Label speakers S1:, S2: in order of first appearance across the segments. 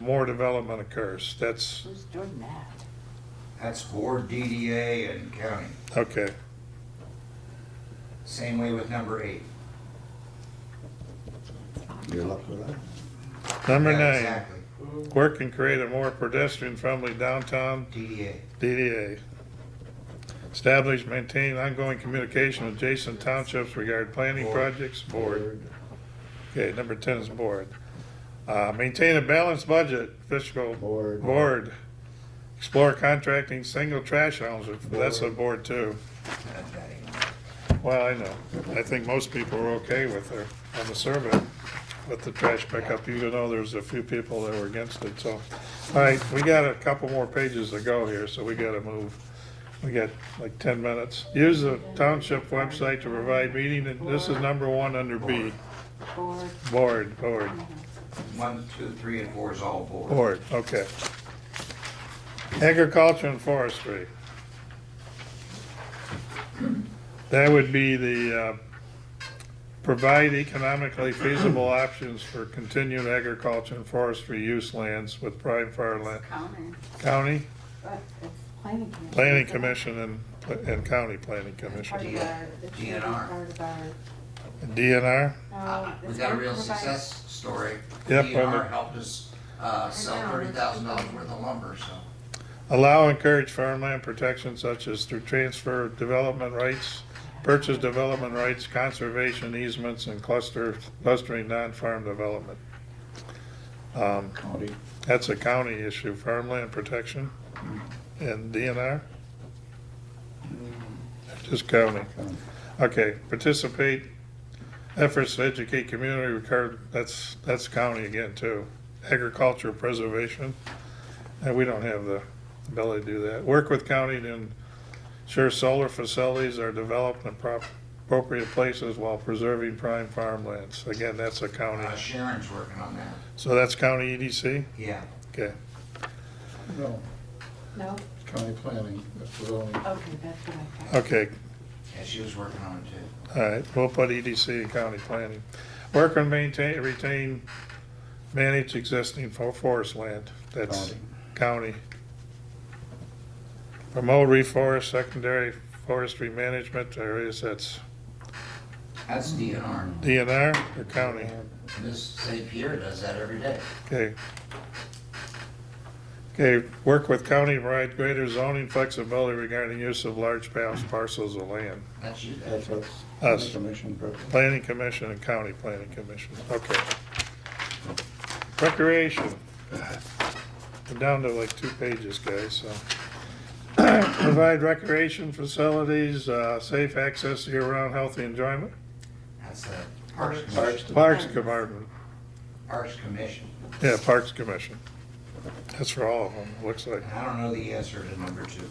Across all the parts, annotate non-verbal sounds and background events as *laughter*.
S1: more development occurs. That's,
S2: Who's doing that?
S3: That's board, DDA, and county.
S1: okay.
S3: Same way with number eight.
S4: Good luck with that.
S1: Number
S3: Yeah,
S1: nine,
S3: Exactly,
S1: work and create a more pedestrian-friendly downtown
S3: DDA.
S1: DDA. Establish, maintain ongoing communication with adjacent townships regarding planning
S3: Board.
S1: projects, board. Okay, number ten is board. Uh, maintain a balanced budget, fiscal.
S4: Board.
S1: Board. Explore contracting single trash hounds, if- that's a board too.
S3: Not Uh, that anymore.
S1: Well, I know, I think most people were okay with her, on the survey, with the trash pickup, even though there's a few people that were against it, so. All right, we got a couple more pages to go here, so we gotta move. We got like ten minutes. Use the township website to provide meeting, and this is number one under B,
S2: Board,
S1: board, board.
S3: One, two, three, and four is all board.
S1: Board, okay. Agriculture and forestry. That would be the, uh, provide economically feasible options for continued agriculture and forestry use lands with prime farmland.
S2: county,
S1: County
S2: but it's planning commission.
S1: Planning
S2: isn't it?
S1: Commission and, and County Planning
S2: Part of
S1: Commission.
S2: our- it's really
S3: DNR.
S2: part of our,
S1: DNR,
S2: uh,
S3: Uh, We
S2: it's
S3: got a
S2: our
S3: real
S2: provide-
S3: success story.
S1: Yep,
S3: DNR
S1: I'm-
S3: helped us uh, sell thirty thousand dollars worth of lumber, so.
S1: Allow and encourage farmland protection such as through transfer of development rights, purchase development rights, conservation easements, and cluster, clustering non-farm development. Um,
S4: County.
S1: That's a county issue, farmland protection and DNR? Just county.
S4: County.
S1: Okay, participate, efforts to educate community regard, that's, that's county again too. Agriculture preservation, and we don't have the ability to do that. Work with county to ensure solar facilities are developed in prop- appropriate places while preserving prime farmlands. Again, that's a county,
S3: uh, Sharon's working on that.
S1: so that's county EDC?
S3: Yeah.
S1: Okay.
S4: No,
S2: No,
S4: county planning, that's the zoning.
S2: okay, that's what I thought.
S1: Okay,
S3: Yeah, she was working on it too.
S1: all right, we'll put E EDC and county planning. Work and maintain, retain, manage existing fo- forest land, that's county. Promote reforest, secondary forestry management areas, that's
S3: That's DNR.
S1: DNR or county,
S3: This St. Pierre does that every day.
S1: okay. Okay, work with county, to provide greater zoning flexibility regarding use of large par- parcels of land.
S3: That's you guys.
S4: That's us.
S1: Us.
S4: Commission, president.
S1: Planning Commission and County Planning Commission, okay. Recreation. We're down to like two pages, guys, so. *clears throat* Provide recreation facilities, uh, safe access to year-round healthy enjoyment.
S3: That's the Parks
S4: Parks.
S3: Commission.
S1: Parks Department,
S3: Parks Commission.
S1: yeah, Parks Commission. That's for all of them, it looks like.
S3: And I don't know the answer to number two.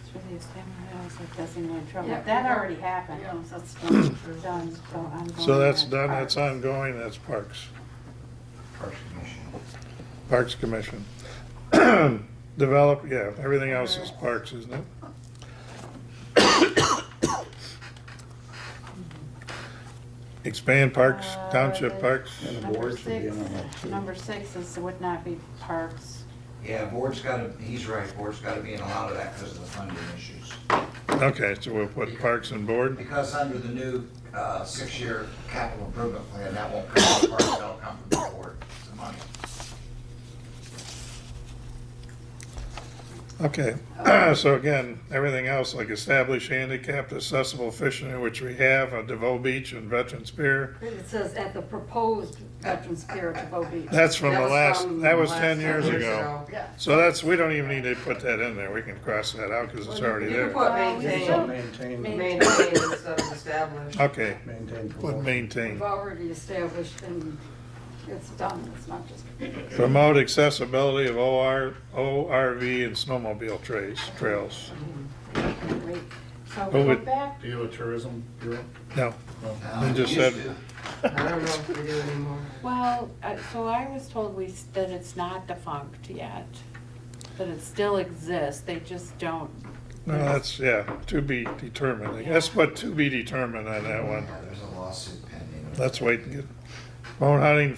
S2: It's really a stamina, I was like, that's in my trouble.
S5: Yeah.
S2: That already happened.
S5: Yeah, that's
S2: Done,
S5: done.
S2: so I'm going.
S1: So that's
S2: on.
S1: done, that's ongoing, that's Parks.
S3: Parks Commission.
S1: Parks Commission. *clears throat* Develop, yeah, everything else is parks, isn't it? *coughs* Expand parks,
S5: Uh,
S1: township parks,
S4: And the
S2: Number
S4: board should be
S2: six,
S4: in on that too.
S2: number six is, would not be parks.
S3: Yeah, board's gotta, he's right, board's gotta be in a lot of that because of the funding issues.
S1: okay, so we'll put parks on board,
S3: Because under the new uh, six-year capital improvement plan, that won't come from the park, that'll come from the board, the money.
S1: okay. *clears throat* So again, everything else, like establish handicapped accessible fishing, which we have, on DeVoe Beach and Veterans Pier.
S5: It says at the proposed Veterans Pier at DeVoe Beach.
S1: That's from
S5: That
S1: the
S5: was
S1: last,
S5: from
S1: that was
S5: last
S1: ten years
S3: years
S1: ago.
S3: ago.
S5: Yeah.
S1: So that's, we don't even need to put that in there, we can cross that out, because it's already
S5: You
S1: there.
S5: can put
S2: Well, we
S4: So
S2: still-
S5: maintain,
S2: Main-
S4: Maintain,
S5: maintain instead of establish.
S1: Okay,
S4: maintain.
S1: would
S5: We've
S1: maintain.
S5: already established and it's done, it's not just.
S1: Promote accessibility of OR, ORV and snowmobile trails, trails.
S2: Wait, So
S1: Who
S2: go
S1: would-
S2: back,
S6: Do you have a tourism bureau?
S1: No,
S3: Now,
S1: They just
S3: used
S1: said-
S3: to,
S7: I don't know if we do anymore.
S8: Well, I- so I was told we, s- that it's not defunct yet, that it still exists, they just don't.
S1: no, that's, yeah, to be determined. I guess what to be determined on that one.
S3: Yeah, There's a lawsuit pending.
S1: Let's wait and get, bone hunting,